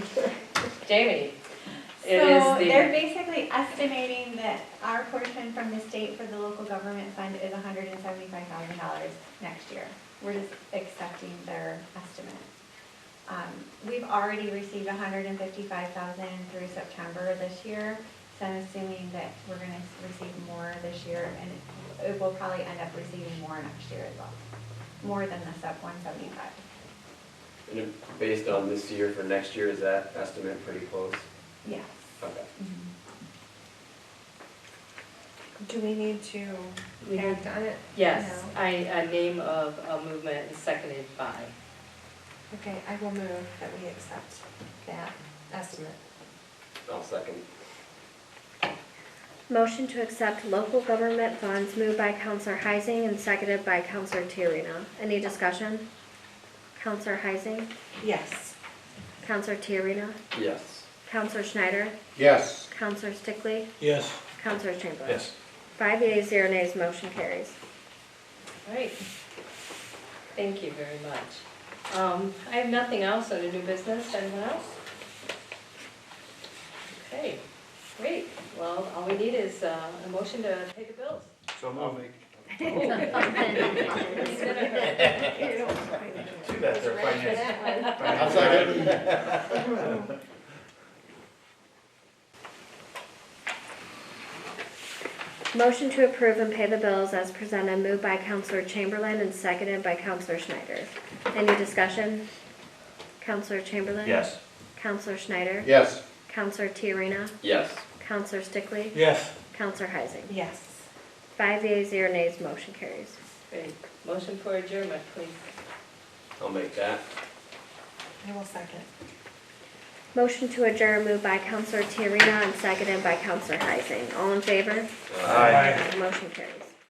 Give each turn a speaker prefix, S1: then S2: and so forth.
S1: Jamie, it is
S2: So
S1: the-
S2: they're basically estimating that our portion from the state for the local government fund is hundred and seventy-five thousand dollars next year. We're just accepting their estimate. Um, we've already received $155,000 through September this year, so I'm assuming that we're gonna receive more this year, and it will probably end up receiving more next year as well, more than the sub one seventy-five.
S3: And if- based on this year for next year, is that estimate pretty close?
S2: Yes.
S3: Okay.
S4: Do we need to
S1: We need-
S4: act on it?
S1: Yes,
S4: No.
S1: I, a name of a movement and seconded by.
S4: Okay, I will move that we accept that estimate.
S3: I'll second.
S5: Motion to accept local government funds moved by Counselor Heising and seconded by Counselor Tiarena. Any discussion? Counselor Heising,
S4: Yes.
S5: Counselor Tiarena,
S3: Yes.
S5: Counselor Schneider,
S6: Yes.
S5: Counselor Stickley,
S6: Yes.
S5: Counselor Chamberlain. Five yeas, zero nays, motion carries.
S1: All right. Thank you very much. Um, I have nothing else under new business, anyone else? Okay, great, well, all we need is uh, a motion to pay the bills.
S6: So moving.
S7: Too bad they're finance.
S6: I'll second.
S5: Motion to approve and pay the bills as presented moved by Counselor Chamberlain and seconded by Counselor Schneider. Any discussion? Counselor Chamberlain?
S7: Yes.
S5: Counselor Schneider?
S6: Yes.
S5: Counselor Tiarena?
S3: Yes.
S5: Counselor Stickley?
S6: Yes.
S5: Counselor Heising?
S4: Yes.
S5: Five yeas, zero nays, motion carries.
S1: Great, motion for adjournment, please.
S3: I'll make that.
S4: I will second.
S5: Motion to adjourn moved by Counselor Tiarena and seconded by Counselor Heising. All in favor?
S3: Uh,
S7: Aye.
S5: Motion carries.